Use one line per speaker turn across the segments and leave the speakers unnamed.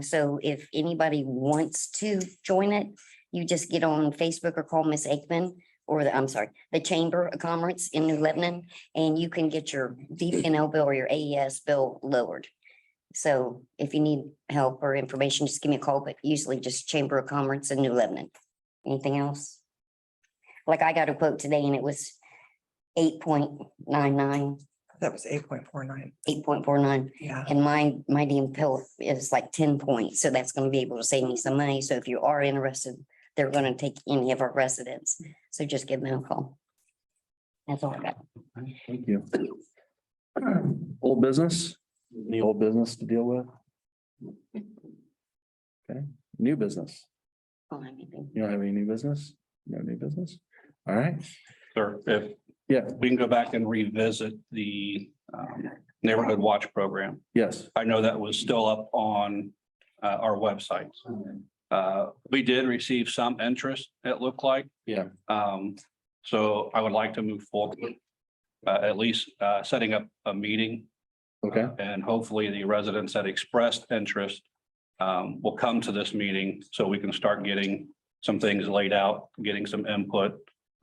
so if anybody wants to join it, you just get on Facebook or call Miss Aikman or the, I'm sorry, the Chamber of Commerce in New Lebanon, and you can get your DPNL bill or your AES bill lowered. So if you need help or information, just give me a call, but usually just Chamber of Commerce in New Lebanon. Anything else? Like I got a quote today and it was eight point nine nine,
That was eight point four nine.
eight point four nine.
Yeah.
And my, my DM pill is like ten points, so that's gonna be able to save me some money. So if you are interested, they're gonna take any of our residents, so just give them a call. That's all I got.
Thank you. Old business, any old business to deal with? Okay, new business.
I don't have anything.
You don't have any new business? No new business? All right,
Sir, if
yeah,
we can go back and revisit the um, Neighborhood Watch Program.
yes,
I know that was still up on uh, our website. Uh, We did receive some interest, it looked like.
Yeah.
Um, So I would like to move forward, uh, at least uh, setting up a meeting.
okay,
And hopefully the residents that expressed interest um, will come to this meeting so we can start getting some things laid out, getting some input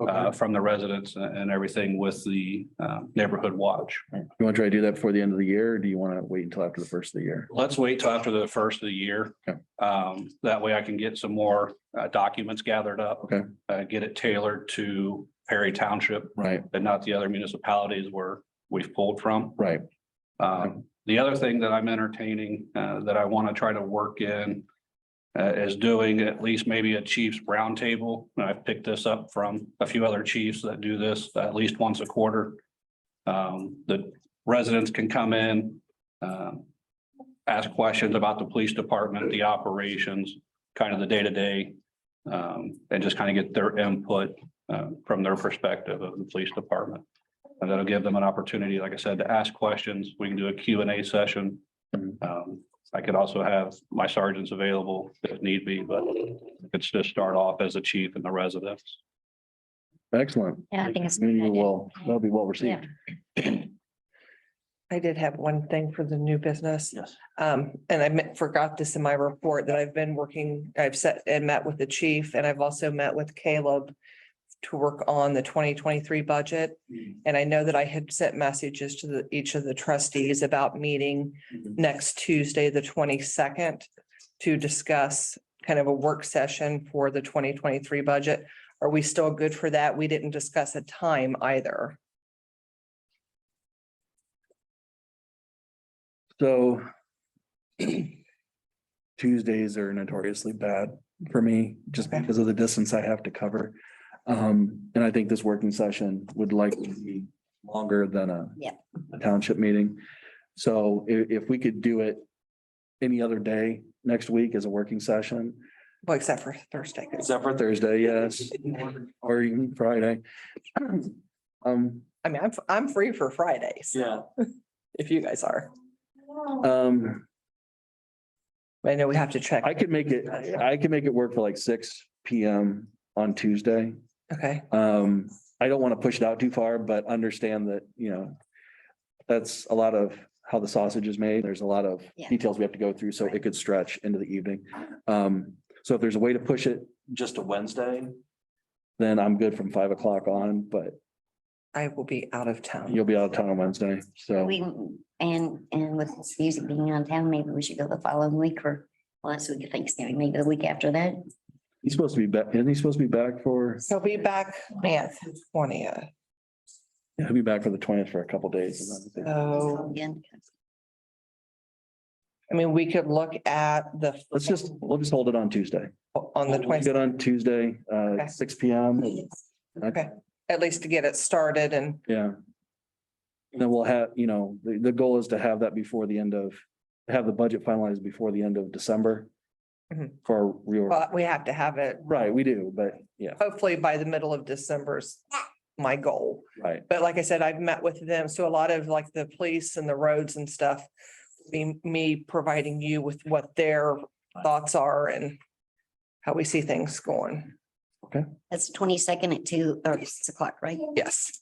uh,
okay.
from the residents a- and everything with the uh, neighborhood watch.
You want to try to do that before the end of the year, or do you want to wait until after the first of the year?
Let's wait till after the first of the year.
Okay.
Um, That way I can get some more uh, documents gathered up.
Okay.
uh, Get it tailored to Perry Township
Right,
and not the other municipalities where we've pulled from.
right,
Um, The other thing that I'm entertaining uh, that I want to try to work in uh, is doing at least maybe a chief's roundtable. And I've picked this up from a few other chiefs that do this at least once a quarter. Um, The residents can come in, um, ask questions about the police department, the operations, kind of the day-to-day, um, and just kind of get their input uh, from their perspective of the police department. And that'll give them an opportunity, like I said, to ask questions. We can do a Q and A session.
Mhm.
Um, I could also have my sergeants available if need be, but it's just start off as a chief and the residents.
excellent.
Yeah, I think it's.
Community will, that'll be well received.
I did have one thing for the new business.
Yes.
Um, and I meant- forgot this in my report that I've been working, I've set and met with the chief and I've also met with Caleb to work on the twenty twenty-three budget. And I know that I had sent messages to the, each of the trustees about meeting
Mhm.
next Tuesday, the twenty-second to discuss kind of a work session for the twenty twenty-three budget. Are we still good for that? We didn't discuss a time either.
So Tuesdays are notoriously bad for me, just because of the distance I have to cover. Um, and I think this working session would likely be longer than a
Yeah.
a township meeting. So i- if we could do it any other day next week as a working session,
Well, except for Thursday. 'cause-
except for Thursday, yes, or even Friday. Um,
I mean, I'm, f- I'm free for Fridays.
Yeah.
If you guys are,
um,
I know we have to check.
I could make it, I could make it work for like six P M on Tuesday.
Okay,
Um, I don't want to push it out too far, but understand that, you know, that's a lot of how the sausage is made. There's a lot of
Yeah.
details we have to go through, so it could stretch into the evening. Um, so if there's a way to push it just to Wednesday, then I'm good from five o'clock on, but
I will be out of town.
you'll be out of town on Wednesday, so.
We, and, and with this music being out of town, maybe we should go the following week or last week of Thanksgiving, maybe the week after that.
He's supposed to be back, isn't he supposed to be back for,
So be back, man, twentieth.
yeah, he'll be back for the twentieth for a couple days. and then-
So,
Again,
I mean, we could look at the,
Let's just, we'll just hold it on Tuesday.
on the
We'll
twenty,
Good on Tuesday, uh,
Okay.
six P M.
okay, at least to get it started and,
Yeah. And then we'll have, you know, the, the goal is to have that before the end of, have the budget finalized before the end of December.
Mhm.
For real,
but we have to have it
right, we do, but yeah,
hopefully by the middle of December's my goal.
right,
But like I said, I've met with them, so a lot of like the police and the roads and stuff. Be me providing you with what their thoughts are and how we see things going.
That's twenty-second at two or six o'clock, right?
Yes,